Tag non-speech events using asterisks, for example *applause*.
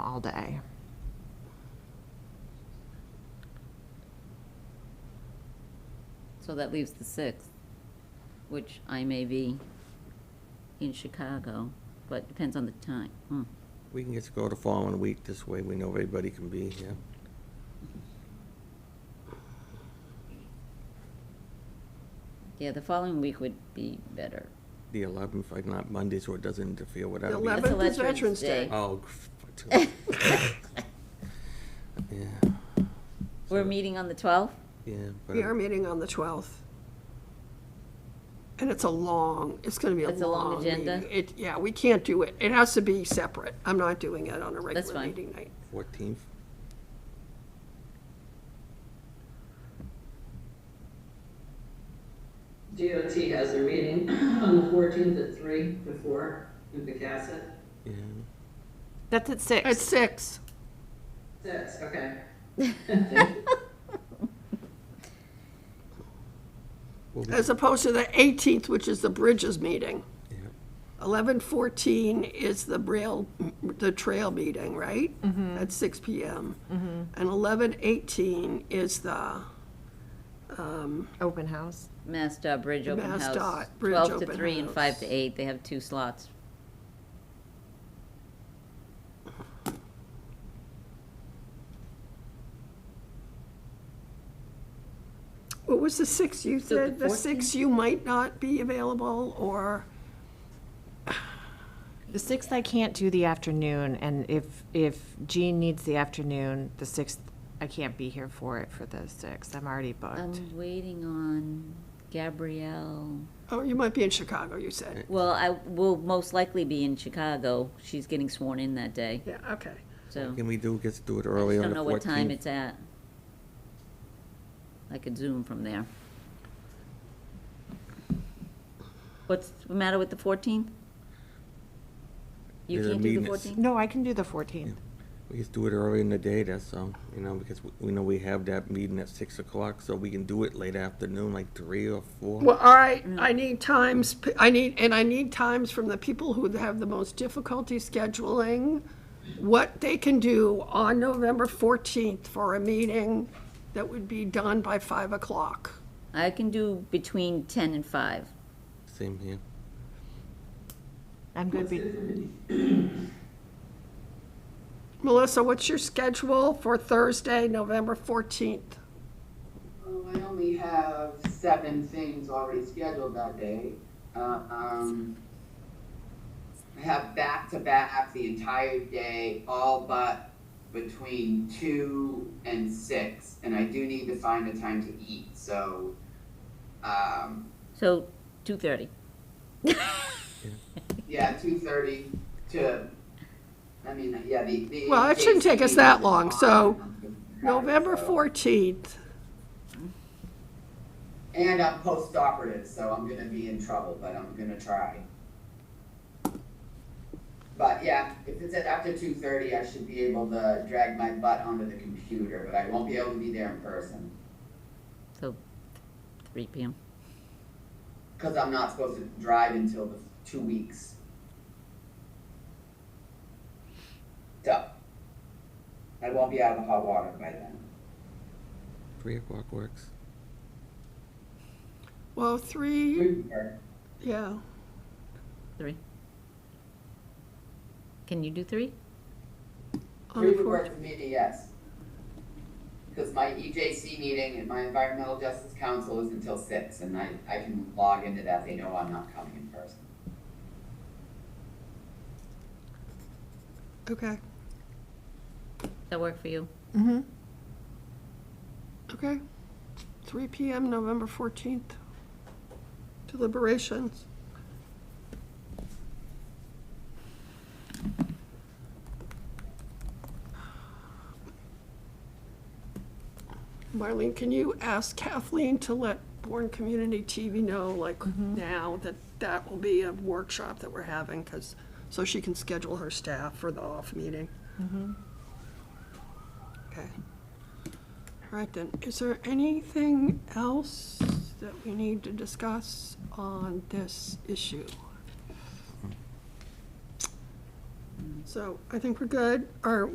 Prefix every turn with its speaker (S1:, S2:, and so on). S1: all day.
S2: So that leaves the sixth, which I may be in Chicago, but depends on the time. Hmm.
S3: We can get to go to following week, this way we know everybody can be here.
S2: Yeah, the following week would be better.
S3: The eleventh, like not Monday, so it doesn't interfere with that.
S4: The
S2: That's
S4: 11th
S2: Veterans
S4: is Veterans Day.
S2: Day.
S3: Oh. *laughs* f- Yeah,
S2: We're meeting on the twelfth?
S3: yeah. but
S4: We are meeting on the 12th. And it's a long, it's going to be a long.
S2: It's a long agenda?
S4: meeting. It, yeah, we can't do it. It has to be separate. I'm not doing it on a regular
S2: fine.
S4: meeting night.
S3: Fourteenth,
S5: DOT has their meeting *clears throat* on the fourteenth at three to four in Pecassett.
S3: yeah.
S1: That's at
S4: At
S1: six.
S4: 6.
S5: Six, okay.
S3: Well, we-
S4: As opposed to the 18th, which is the Bridges meeting.
S3: yeah.
S4: 11:14 is the rail, the trail meeting, right?
S2: Mm-hmm.
S4: At 6 PM. And 11:18 is the,
S1: Open house.
S2: Mass dot Bridge Open House.
S4: MassDOT Bridge
S2: Twelve to
S4: Open
S2: three and
S4: House.
S2: five to eight, they have two slots.
S4: what was the 6th you
S2: So the
S4: said? The 6th you might not be available, or,
S1: The sixth, I can't do the afternoon, and if, if Jean needs the afternoon, the sixth, I can't be here for it for the sixth. I'm already booked.
S2: I'm waiting on Gabrielle.
S4: oh, you might be in Chicago, you said.
S2: Well, I will most likely be in Chicago. She's getting sworn in that day,
S4: Yeah, okay.
S2: so.
S3: Can we do, get to do it
S2: I
S3: early
S2: Oh. just don't
S3: on the
S2: know what time
S3: fourteenth?
S2: it's at. I could zoom from there. What's the matter with the fourteenth? You
S3: There's a
S2: can't do the
S3: meeting at s-
S2: fourteenth?
S1: No, I can do the fourteenth.
S3: We just do it early in the day, that's all, you know, because we- we know we have that meeting at six o'clock, so we can do it late afternoon, like three or four.
S4: Well, all right, I need times, p- I need, and I need times from the people who have the most difficulty scheduling, what they can do on November 14th for a meeting that would be done by 5 o'clock.
S2: I can do between ten and five.
S3: Same here.
S1: I'm good. be-
S4: Melissa, what's your schedule for Thursday, November 14th?
S6: Oh, I only have seven things already scheduled that day. Uh, um, I have back to back the entire day, all but between two and six, and I do need to find a time to eat. So, um,
S2: So, two thirty. *laughs*
S6: yeah, two thirty to. I mean, yeah, the, the
S4: Well, it shouldn't take us that long, so November
S6: So-
S4: 14th,
S6: And I'm post-operative, so I'm gonna be in trouble, but I'm gonna try. But yeah, if it's at after two thirty, I should be able to drag my butt onto the computer, but I won't be able to be there in person.
S2: So, three PM.
S6: Cause I'm not supposed to drive until the two weeks. So, I won't be out of the hot water by then.
S3: Three o'clock works.
S4: well, 3,
S6: Remember,
S4: yeah.
S2: Three. Can you do three?
S4: on the
S6: Three would
S4: 14th.
S6: work for me, yes. Because my EJC meeting and my Environmental Justice Council is until six, and I, I can log into that, they know I'm not coming in person.
S4: Okay,
S2: That work for you?
S4: okay. 3 PM, November 14th. Deliberations. Marlene, can you ask Kathleen to let Born Community TV know, like, now that that will be a workshop that we're having, because, so she can schedule her staff for the off meeting? Okay. All right then, is there anything else that we need to discuss on this issue? So I think we're good, or